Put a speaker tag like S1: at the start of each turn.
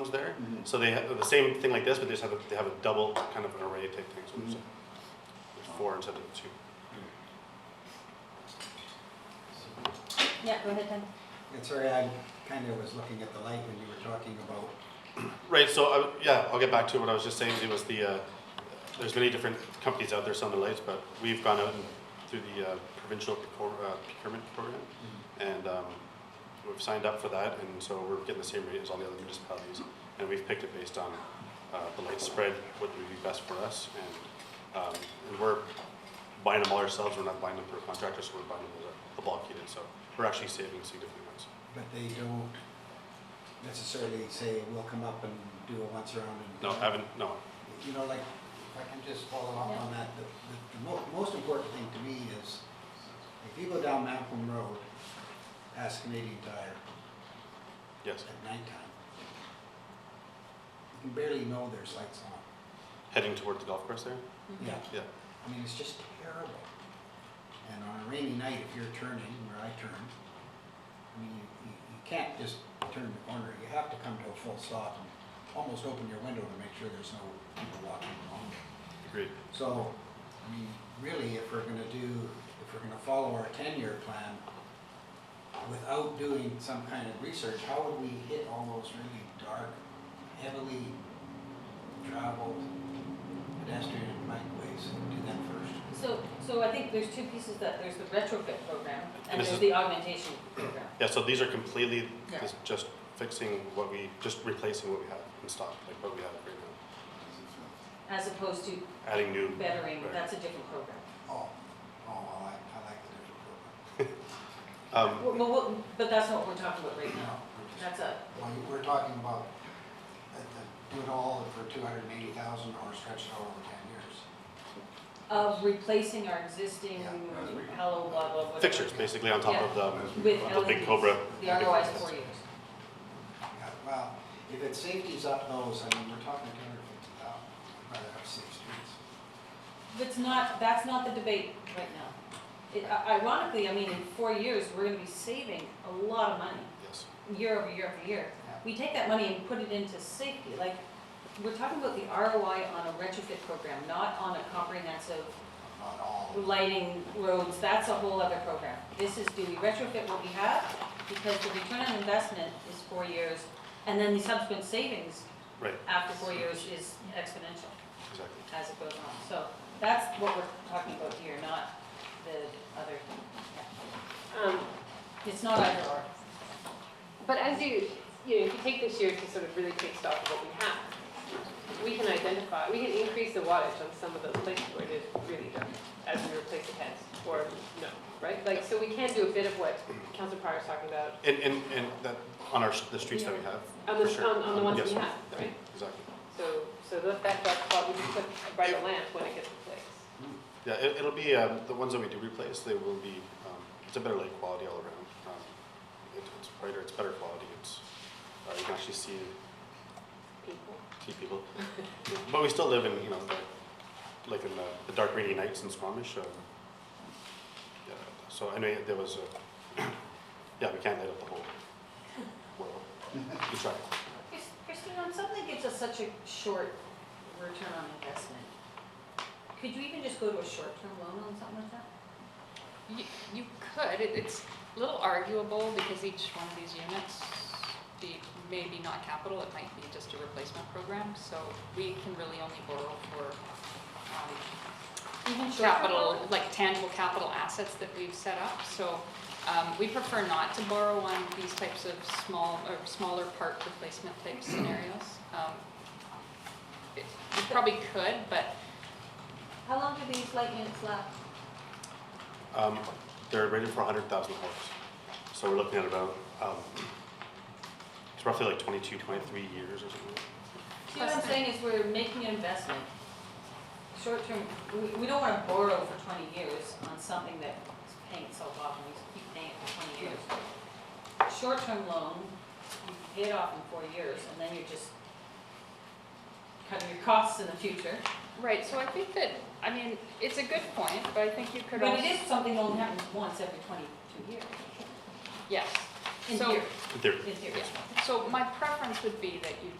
S1: was there.
S2: Mhm.
S1: So they have the same thing like this, but they just have a, they have a double kind of an array type thing. So there's,
S2: Mhm.
S1: there's four instead of two.
S3: Yeah, go ahead, Tom.
S4: And sorry, I kind of was looking at the light when you were talking about,
S1: Right. So I, yeah, I'll get back to what I was just saying. It was the uh, there's many different companies out there selling the lights, but we've gone out and through the uh, provincial procure, uh, procurement program, and um, we've signed up for that, and so we're getting the same rate as all the other municipalities, and we've picked it based on uh, the light spread, what would be best for us, and, um, and we're buying them all ourselves. We're not buying them for a contractor, so we're buying them as a, a bulk unit. So we're actually saving significant amounts.
S4: but they don't necessarily say, we'll come up and do a once around and.
S1: No, I haven't. No,
S4: You know, like, if I can just follow up
S3: Yeah.
S4: on that, the, the, the mo- most important thing to me is, if you go down Malcolm Road, past Canadian Tire
S1: yes,
S4: at nighttime, you can barely know there's lights on.
S1: heading toward the golf course there.
S4: Yeah.
S1: Yeah.
S4: I mean, it's just terrible. And on a rainy night, if you're turning where I turn, I mean, you, you, you can't just turn the corner. You have to come to a full stop and almost open your window to make sure there's no people walking along.
S1: Agreed.
S4: So, I mean, really, if we're gonna do, if we're gonna follow our ten-year plan without doing some kind of research, how would we hit all those really dark, heavily traveled pedestrian bikeways and do that first?
S3: So, so I think there's two pieces that, there's the retrofit program
S1: And
S3: and
S1: this
S3: there's
S1: is-
S3: the augmentation program.
S1: Yeah, so these are completely
S3: Yeah.
S1: just- just fixing what we, just replacing what we have in stock, like what we have right now.
S3: As opposed to
S1: Adding new,
S3: bettering,
S1: Mm-hmm. Right.
S3: that's a different program.
S4: Oh, oh, well, I, I like the different program.
S1: um,
S3: Well, well, but that's not what we're talking about right
S4: No,
S3: now.
S4: we're just-
S3: That's a,
S4: Well, you- we're talking about, uh, the- do it all for two hundred and eighty thousand or stretch it out over ten years.
S3: of replacing our existing
S4: Yeah,
S2: that's right.
S3: hello, blah, blah, whatever.
S1: fixtures, basically on top of the, um,
S3: With
S1: the big
S3: LEDs.
S1: Cobra.
S3: The ROI is four years.
S4: Yeah, Well, if it's safety's up those, I mean, we're talking two hundred fifty thousand, rather have safe streets.
S3: That's not, that's not the debate right now. It- uh, Ironically, I mean, in four years, we're gonna be saving a lot of money.
S1: Yes,
S3: year over year over year.
S4: Yeah.
S3: We take that money and put it into safety, like, we're talking about the ROI on a retrofit program, not on a comprehensive
S4: Not all,
S3: lighting roads, that's a whole other program. This is, do we retrofit what we have, because the return on investment is four years, and then the subsequent savings
S1: right,
S3: after four years is exponential
S1: exactly.
S3: as it goes on. So that's what we're talking about here, not the other,
S5: Um,
S3: it's not either or.
S5: But as you, you know, if you take this year to sort of really take stock of what we have, we can identify, we can increase the wattage on some of those places where it is really dark as we replace the heads, or no, right? Like, so we can do a bit of what Council Pryor's talking about
S1: And, and, and that, on our, the streets that we have,
S5: on
S1: for
S5: the,
S1: sure.
S5: on, on the ones
S1: Yes,
S5: we have,
S1: yeah,
S5: right?
S1: Exactly.
S5: So, so that, that dark spot, we can put a brighter lamp when it gets replaced.
S1: Yeah, it, it'll be, um, the ones that we do replace, they will be, um, it's a better light quality all around. Um, it- It's brighter, it's better quality, it's, uh, you can actually see,
S5: People.
S1: see people. But we still live in, you know, the, like in the, the dark rainy nights in Squamish, um, yeah, so anyway, there was a, yeah, we can't light up the whole world. We try.
S3: Chris- Christine, on something that gives us such a short return on investment, could you even just go to a short-term loan on something like that?
S6: You, you could, It- it's a little arguable because each one of these units be, maybe not capital, it might be just a replacement program, so we can really only borrow for, um,
S3: Even
S6: capital, like tangible capital assets that we've set up, so, um, we prefer not to borrow on these types of small, or smaller part replacement type scenarios. Um, it- You probably could, but
S3: How long do these light units last?
S1: Um, they're rated for hundred thousand hours, so we're looking at about, um, it's roughly like 22, 23 years or something.
S3: See, what I'm
S6: Plus-
S3: saying is we're making an investment, short-term, we, we don't wanna borrow for twenty years on something that's paying itself off and we keep paying it for twenty years. Short-term loan, you pay it off in four years and then you're just cutting your costs in the future.
S6: Right, so I think that, I mean, it's a good point, but I think you could also.
S3: But it is something that only happens once every twenty-two years,
S6: Yes.
S3: in
S6: So,
S3: theory,
S1: They're-
S3: in theory.
S6: yeah. so my preference would be that you